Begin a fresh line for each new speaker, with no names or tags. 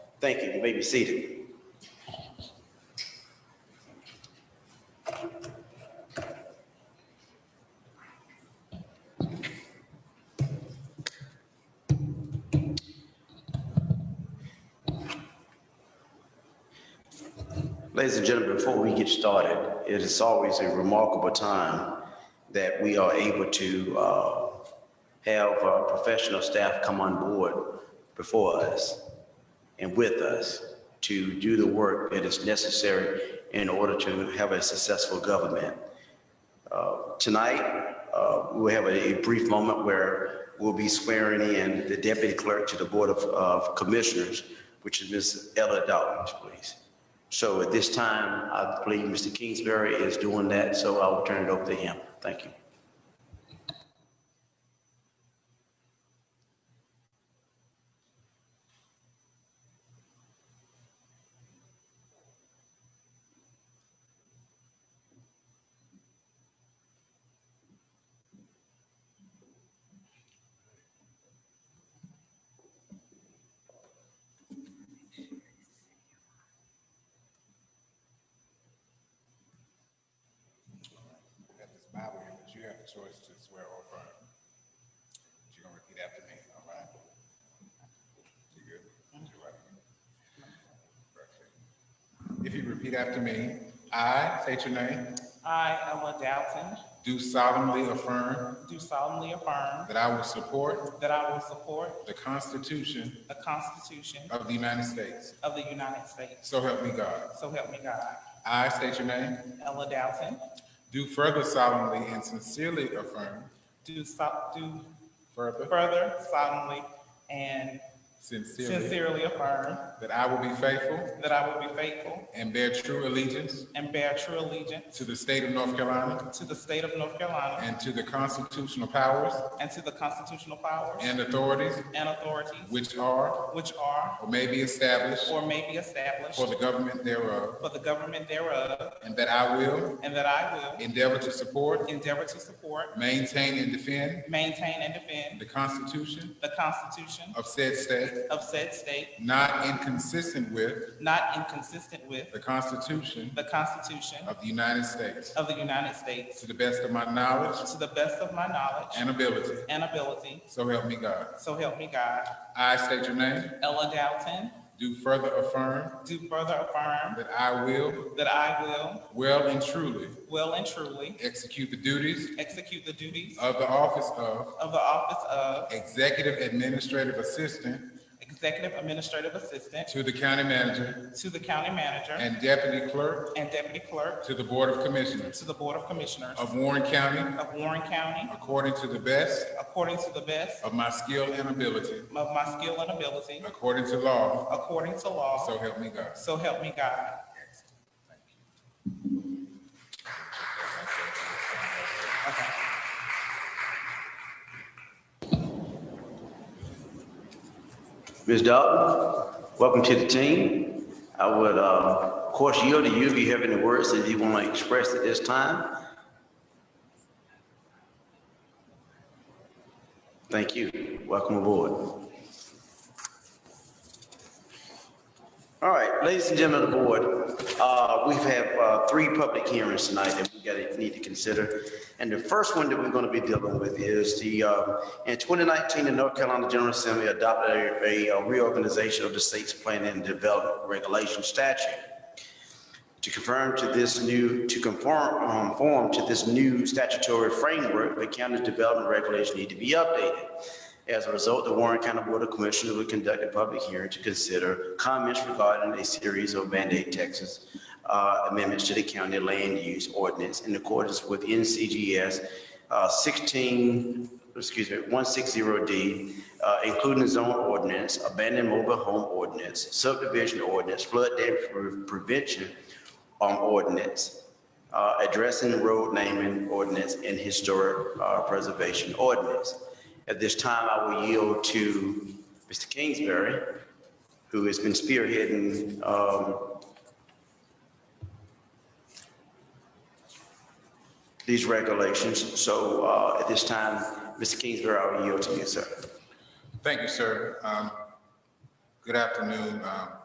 Thank you. You may be seated. Ladies and gentlemen, before we get started, it is always a remarkable time that we are able to uh, have uh, professional staff come on board before us and with us to do the work that is necessary in order to have a successful government. Uh, Tonight, uh, we'll have a a brief moment where we'll be swearing in the deputy clerk to the Board of- of Commissioners, which is Ms. Ella Dawkins, please. So at this time, I believe Mr. Kingsbury is doing that, so I will turn it over to him. Thank you.
Got this Bible here, but you have the choice to swear or affirm. But you're gonna repeat after me, all right? You good? You right? Perfect. If you repeat after me, I state your name,
I, Ella Dalton,
do solemnly affirm
do solemnly affirm
that I will support
that I will support
the Constitution
the Constitution
of the United States.
of the United States.
So help me God.
So help me God.
I state your name,
Ella Dalton,
do further solemnly and sincerely affirm,
do so- do
further
further solemnly and
sincerely,
sincerely affirm
that I will be faithful
that I will be faithful
and bear true allegiance
and bear true allegiance
to the state of North Carolina
to the state of North Carolina
And to the constitutional powers
and to the constitutional powers
and authorities
and authorities
which are
which are
or may be established
or may be established
for the government thereof,
for the government thereof,
and that I will
and that I will
endeavor to support,
endeavor to support,
maintain, and defend
maintain, and defend
the Constitution
The Constitution
of said state,
of said state,
not inconsistent with
not inconsistent with
the Constitution
the Constitution
of the United States,
of the United States,
to the best of my knowledge
to the best of my knowledge
and ability.
and ability,
So help me God.
so help me God.
I state your name,
Ella Dalton,
do further affirm
do further affirm
that I will
that I will,
well and truly
well and truly,
execute the duties
execute the duties
of the office of
of the office of
Executive Administrative Assistant
Executive Administrative Assistant
to the County Manager
to the County Manager
and Deputy Clerk
and Deputy Clerk
to the Board of Commissioners
to the Board of Commissioners
of Warren County
of Warren County,
according to the best
according to the best
of my skill and ability,
of my skill and ability,
according to law,
according to law,
so help me God.
So help me God. Okay.
Ms. Dalton, welcome to the team. I would, uh, of course, yield to you if you have any words that you want to express at this time. Thank you. Welcome aboard. All right, ladies and gentlemen of the board, uh, we have uh, three public hearings tonight that we got to need to consider. And the first one that we're going to be dealing with is the, uh, in 2019, the North Carolina General Assembly adopted a- a reorganization of the state's planning and development regulation statute to confirm to this new, to conform, um, form to this new statutory framework, the county's development regulations need to be updated. As a result, the Warren County Board of Commissioners will conduct a public hearing to consider comments regarding a series of mandate Texas uh, amendments to the county land use ordinance in accordance with NCGS uh, 16, excuse me, 160D, uh, including zone ordinance, abandoned mobile home ordinance, subdivision ordinance, flood damage pre- prevention um, ordinance, uh, addressing road naming ordinance and historic uh, preservation ordinance. At this time, I will yield to Mr. Kingsbury, who has been spearheading um, these regulations. So uh, at this time, Mr. Kingsbury, I will yield to you, sir.
Thank you, sir. Um, Good afternoon, um,